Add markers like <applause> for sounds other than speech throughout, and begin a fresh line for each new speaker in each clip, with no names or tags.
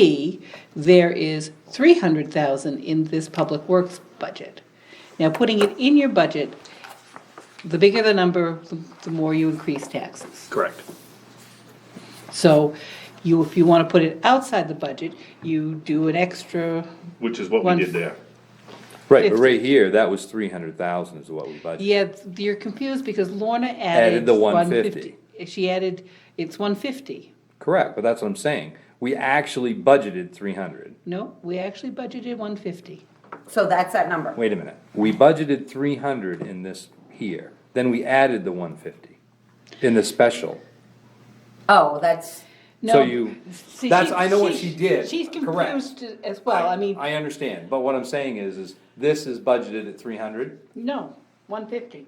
B, there is three hundred thousand in this public works budget. Now, putting it in your budget, the bigger the number, the- the more you increase taxes.
Correct.
So you, if you wanna put it outside the budget, you do an extra,
Which is what
One-
we did there.
Right, but
Fifty.
right here, that was three hundred thousand is what we budgeted.
yeah, you're confused because Lorna added.
Added the 150.
150. She added, it's one fifty.
Correct, but that's what I'm saying. We actually budgeted three hundred.
No, we actually budgeted one fifty.
So that's that number.
Wait a minute. We budgeted three hundred in this here, then we added the one fifty in the special.
Oh, that's,
So you- that's- I know what she did.
She's
Correct.
confused as well, I mean,
I understand, but what I'm saying is, is this is budgeted at three hundred
no, one fifty.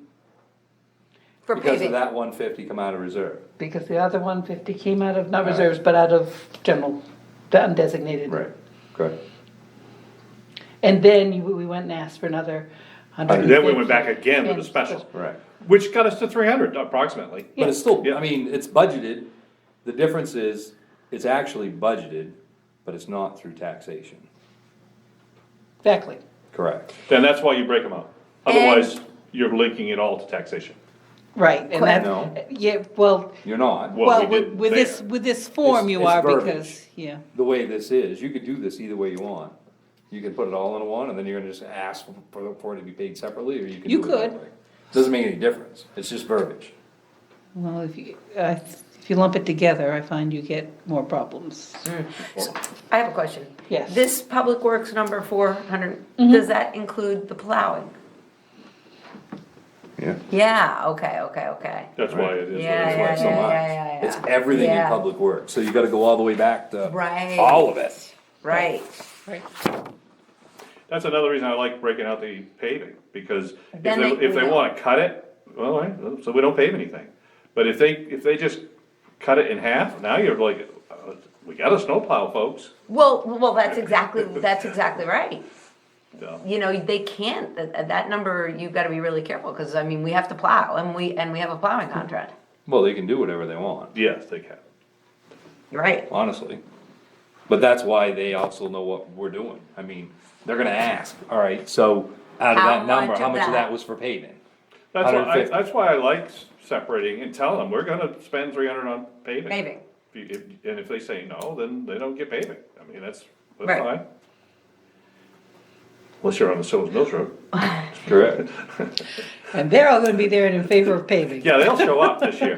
for
because of
paving.
that one fifty come out of reserve.
Because the other one fifty came out of, not reserves, but out of general, the undesignated.
correct.
And then you- we went and asked for another hundred and
And
fifty.
then we went back again with a special.
Correct.
Which got us to three hundred approximately.
But it's still,
Yeah.
I mean, it's budgeted. The difference is, it's actually budgeted, but it's not through taxation.
Exactly.
Correct.
Then that's why you break them up. Otherwise, you're linking it all to taxation.
Right, and
No.
that's, yeah, well,
You're not.
Well,
well,
we
with
did
with this,
there.
with this form
It's-
you
it's
are
verbiage.
because, yeah.
The way this is, you could do this either way you want. You can put it all in one, and then you're gonna just ask for, for it to be paid separately, or you can
You
do it that
could.
way. Doesn't make any difference. It's just verbiage.
Well, if you, uh, if you lump it together, I find you get more problems.
I have a question.
Yes.
This public works number four hundred, does that include the plowing?
Yeah.
Yeah, okay, okay, okay.
That's why it is. what it
Yeah, yeah,
is.
That's why it's so much.
yeah, yeah, yeah.
It's everything in
Yeah.
public work, so you gotta go all the way back to.
Right.
All of it.
Right.
Right.
That's another reason I like breaking out the paving, because if
Then
they,
they-
if they wanna cut it, well, all right, so we don't pave anything. But if they, if they just cut it in half, now you're like, uh, we got a snowplow, folks.
Well, well, that's exactly,
<laughs>
that's exactly right.
So,
You know, they can't, that, that number, you've gotta be really careful, cause I mean, we have to plow and we, and we have a plowing
Mm-hmm.
contract.
Well, they can do whatever they want,
Yes, they can.
Right.
honestly. But that's why they also know what we're doing. I mean, they're gonna ask, all right, so out of
How
that number,
much
how
of
much of
that?
that was for paving?
That's why, I-
150.
that's why I like s- separating and telling them, we're gonna spend three hundred on paving.
Paving.
If you- if- And if they say no, then they don't get paving, I mean, that's, that's
Right.
fine. Unless you're on the Silver Mills Road,
Correct.
And they're all gonna be there and in favor of paving.
yeah, they'll show up this year,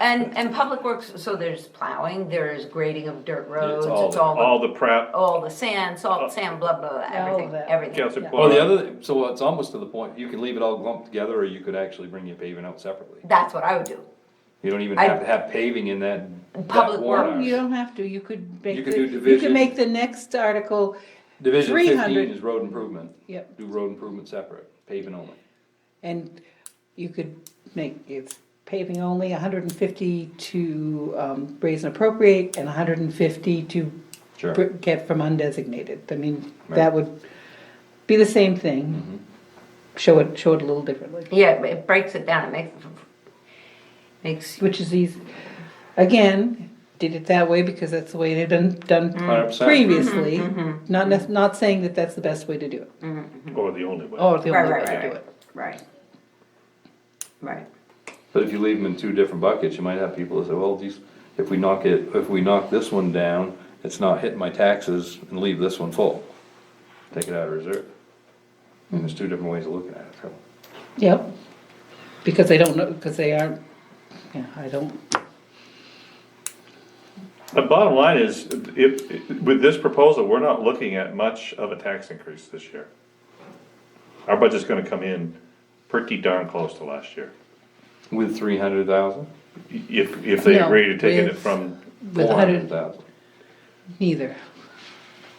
And, and public works, so there's plowing, there's grading of dirt roads, it's
all
all
there.
the
all the prep,
all the sand, salt, sand, blah, blah, blah,
All of
everything,
that.
everything.
calcium
Yeah.
Well, Oh, the
chloride.
other, so it's almost to the point, you can leave it all lumped together, or you could actually bring your paving out separately.
That's what I would do.
You don't even
I-
have to have paving in that, that
Public
warrant.
work.
You don't have to, you could
You
make,
could
the-
do
you could
division.
make the next article,
Division
300.
fifteen is road improvement.
Yep.
Do road improvement separate, paving only.
and you could make, it's paving only, hundred and fifty to, um, raise and appropriate, and hundred and fifty to
Sure.
br- get from undesignated, I mean,
Right. Mm-hmm.
that would be the same thing. Show it, show it a little differently,
Yeah, but it breaks it down, it makes, makes,
which is easy, again, did it that way because that's the way it had done,
Mm-hmm.
done
100%.
previously, not, nec- not saying that that's the best way to do it,
or the only way.
Oh.
or the
Right,
only way
right,
to
right,
do
right.
it.
right. Right,
But if you leave them in two different buckets, you might have people that say, well, geez, if we knock it, if we knock this one down, it's not hitting my taxes and leave this one full. Take it out of reserve. And there's two different ways of looking at it, so.
Yep, because they don't know, because they aren't, yeah, I don't,
The bottom line is, if, with this proposal, we're not looking at much of a tax increase this year. Our budget's gonna come in pretty darn close to last year,
With three hundred thousand,
if, if they
No,
agree to taking it
with-
from,
with
four
a
hundred
hundred,
thousand.
neither.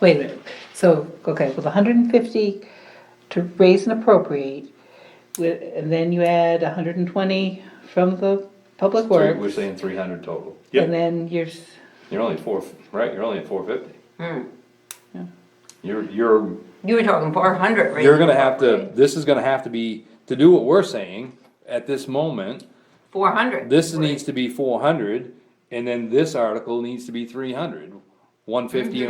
Wait a minute, so, okay, with hundred and fifty to raise and appropriate, with, and then you add hundred and twenty from the public
Three, we're
works,
saying three hundred total.
Yep.
and then you're, s-
You're only four, right, you're only at four fifty. You're, you're,
you were talking four hundred, right?
you're gonna have to, this is gonna have to be, to do what we're saying at this moment,
Four hundred.
this needs to be four hundred, and then this article needs to be three hundred. one fifty